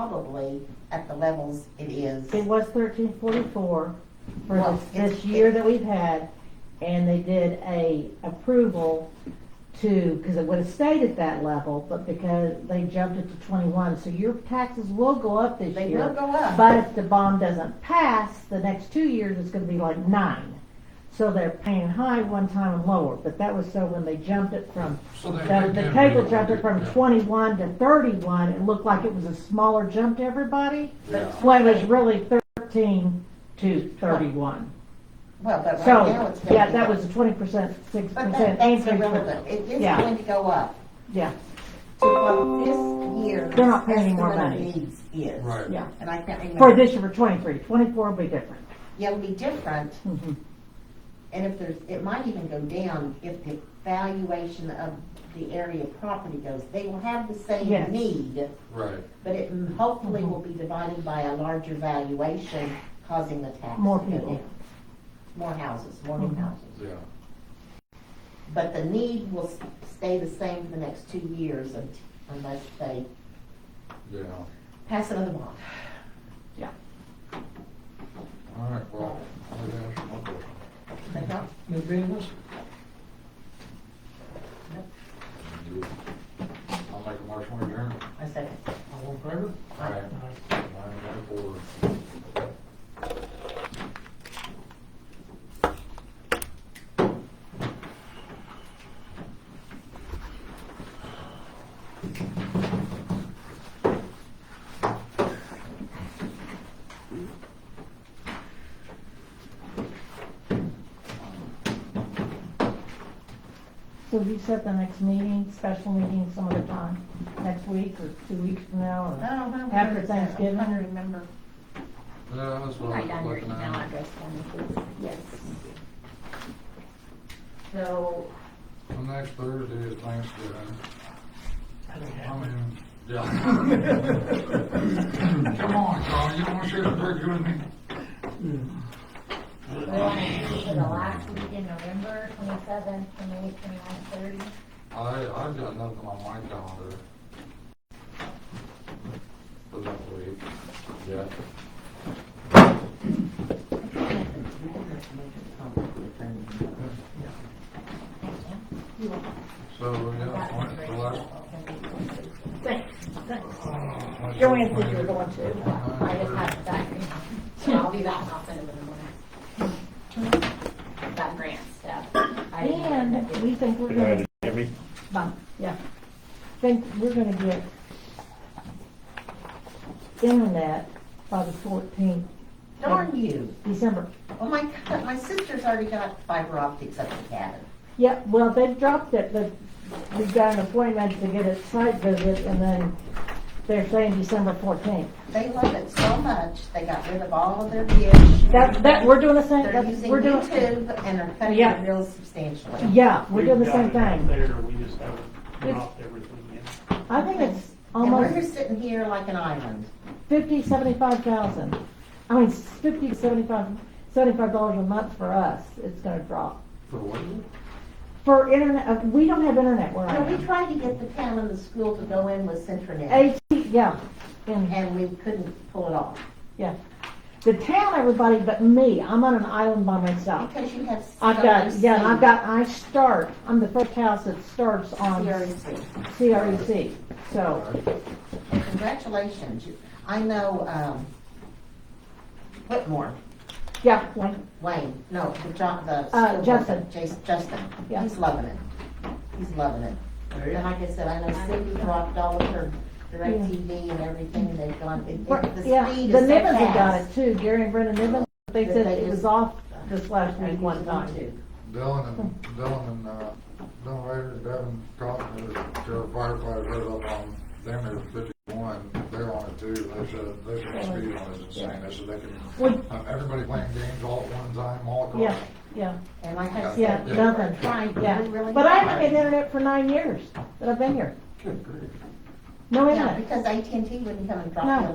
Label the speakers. Speaker 1: probably at the levels it is.
Speaker 2: It was thirteen forty-four
Speaker 1: Well,
Speaker 2: for this,
Speaker 1: it's-
Speaker 2: this year that we've had, and they did a approval to, because it would have stayed at that level, but because they jumped it to twenty-one, so your taxes will go up this
Speaker 1: They
Speaker 2: year.
Speaker 1: will go up.
Speaker 2: But if the bond doesn't pass, the next two years it's gonna be like nine. So they're paying high one time and lower, but that was so when they jumped it from,
Speaker 3: So they-
Speaker 2: the,
Speaker 3: they
Speaker 2: the
Speaker 3: can
Speaker 2: table
Speaker 3: really
Speaker 2: jumped
Speaker 3: do
Speaker 2: it from
Speaker 3: that.
Speaker 2: twenty-one to thirty-one, it looked like it was a smaller jump to everybody.
Speaker 1: But
Speaker 2: Well, it was really thirteen to thirty-one.
Speaker 1: Well, but right now
Speaker 2: So,
Speaker 1: it's. gonna
Speaker 2: yeah,
Speaker 1: be-
Speaker 2: that was a twenty percent, six
Speaker 1: But that,
Speaker 2: percent
Speaker 1: that's
Speaker 2: increase.
Speaker 1: irrelevant. It is
Speaker 2: Yeah.
Speaker 1: going to go up
Speaker 2: Yeah,
Speaker 1: to what this year's.
Speaker 2: They're not paying any more
Speaker 1: estimate of
Speaker 2: money.
Speaker 1: needs Is.
Speaker 3: Right.
Speaker 2: yeah.
Speaker 1: And I can't remember.
Speaker 2: For this year, for twenty-three, twenty-four will be different.
Speaker 1: Yeah, it'll be different.
Speaker 2: Mhm.
Speaker 1: And if there's, it might even go down if the valuation of the area property goes. They will have the
Speaker 2: Yes.
Speaker 1: same need,
Speaker 3: Right.
Speaker 1: but it m- hopefully will be divided by a larger valuation causing the tax.
Speaker 2: More
Speaker 1: to go
Speaker 2: people.
Speaker 1: down. More houses, more new
Speaker 2: Mhm.
Speaker 1: houses.
Speaker 3: Yeah.
Speaker 1: But the need will s- stay the same for the next two years un- unless they
Speaker 3: Yeah.
Speaker 1: pass another bond.
Speaker 2: Yeah.
Speaker 3: All right. Well, I'll answer my question.
Speaker 1: But not-
Speaker 4: New business?
Speaker 3: I'll make a motion to adjourn.
Speaker 1: I second.
Speaker 4: All in favor?
Speaker 3: All right.
Speaker 4: Aye.
Speaker 3: Nine one four.
Speaker 2: So you set the next meeting, special meeting some other time, next week or two weeks from now,
Speaker 1: I
Speaker 2: or
Speaker 1: don't know.
Speaker 2: After Thanksgiving?
Speaker 1: I don't remember.
Speaker 3: Yeah, that's what I
Speaker 1: Write down
Speaker 3: was
Speaker 1: your
Speaker 3: looking
Speaker 1: email
Speaker 3: at.
Speaker 1: address for me, please. Yes. So,
Speaker 3: Well, Next Thursday is Thanksgiving.
Speaker 4: I don't
Speaker 3: I
Speaker 4: have it.
Speaker 3: mean, yeah. Come on, Carl, you don't want to share the burger with me?
Speaker 5: We want to do for the last week in November, twenty-seventh, twenty-eighth, twenty-ninth, thirty.
Speaker 3: I, I've got nothing on my calendar. For that week. Yeah. So, yeah, twenty, the last.
Speaker 5: Thanks, thanks.
Speaker 2: Joanne said you were going to.
Speaker 5: I just had that, grant. so I'll be back, and I'll send it in the morning. That grant stuff. I didn't-
Speaker 2: and we think we're
Speaker 6: Good
Speaker 2: gonna,
Speaker 6: night, Jimmy.
Speaker 2: Bye. yeah, think we're gonna get internet by the fourteenth,
Speaker 1: darn you.
Speaker 2: December.
Speaker 1: Oh my God, my sister's already got fiber optics at the cabin.
Speaker 2: Yeah, well, they've dropped it, but we've got an appointment to get a site visit, and then they're saying December fourteenth.
Speaker 1: They love it so much, they got rid of all of their dish.
Speaker 2: That, that, we're doing the same,
Speaker 1: They're
Speaker 2: that's,
Speaker 1: using
Speaker 2: we're doing.
Speaker 1: YouTube and are cutting
Speaker 2: Yeah.
Speaker 1: it real substantially.
Speaker 2: Yeah, we're doing the
Speaker 7: We've got
Speaker 2: same
Speaker 7: it out
Speaker 2: thing.
Speaker 7: There, we just haven't
Speaker 2: It's-
Speaker 7: dropped everything yet.
Speaker 2: I think it's
Speaker 1: And we're
Speaker 2: almost
Speaker 1: just sitting here like an island.
Speaker 2: fifty, seventy-five thousand. I mean, s- fifty, seventy-five, seventy-five dollars a month for us, it's gonna drop.
Speaker 3: For what?
Speaker 2: For internet, uh, we don't have internet where I
Speaker 1: So we
Speaker 2: am.
Speaker 1: tried to get the town and the school to go in with Centranet,
Speaker 2: AT, yeah, and,
Speaker 1: and we couldn't pull it off.
Speaker 2: yeah. The town, everybody but me, I'm on an island by myself.
Speaker 1: Because you have.
Speaker 2: I've got,
Speaker 1: so
Speaker 2: yeah,
Speaker 1: much
Speaker 2: I've got, I start, I'm the first house that starts on
Speaker 1: CRC.
Speaker 2: CREC, so,
Speaker 1: And Congratulations. You- I know, um, Whitmore,
Speaker 2: yeah, like,
Speaker 1: Wayne, no, the John, the.
Speaker 2: Uh,
Speaker 1: school
Speaker 2: Justin.
Speaker 1: board, Jas- Justin,
Speaker 2: Yeah.
Speaker 1: he's loving it. He's loving it. And like I said, I know Cindy dropped all of her direct
Speaker 2: Yeah.
Speaker 1: TV and everything, and they've gone, it-
Speaker 2: we're-
Speaker 1: it- the
Speaker 2: yeah,
Speaker 1: speed
Speaker 2: the
Speaker 1: is so
Speaker 2: Nivens have got
Speaker 1: fast.
Speaker 2: it too, Gary and Brenda Nivens, they
Speaker 1: That
Speaker 2: said
Speaker 1: they
Speaker 2: it was
Speaker 1: just-
Speaker 2: off this last
Speaker 1: I
Speaker 2: week one
Speaker 1: usually want
Speaker 2: time.
Speaker 1: to.
Speaker 3: Dylan and, Dylan and, uh, Dylan Rader, Devin Cotton, their firefighter heard up on, them they were fifty-one, they're on it too, they said, they said the speed on it is insane, they said they
Speaker 2: Well-
Speaker 3: can, uh, everybody playing games all at one time, all across.
Speaker 2: Yeah, yeah,
Speaker 1: And like I
Speaker 2: yeah,
Speaker 1: said,
Speaker 2: nothing,
Speaker 1: trying, but we
Speaker 2: yeah.
Speaker 1: really.
Speaker 2: But I
Speaker 1: tried.
Speaker 2: haven't had internet for nine years that I've been here.
Speaker 3: Good grief.
Speaker 2: No
Speaker 1: Yeah,
Speaker 2: internet.
Speaker 1: because AT&T wouldn't come and drop
Speaker 2: No.
Speaker 1: you a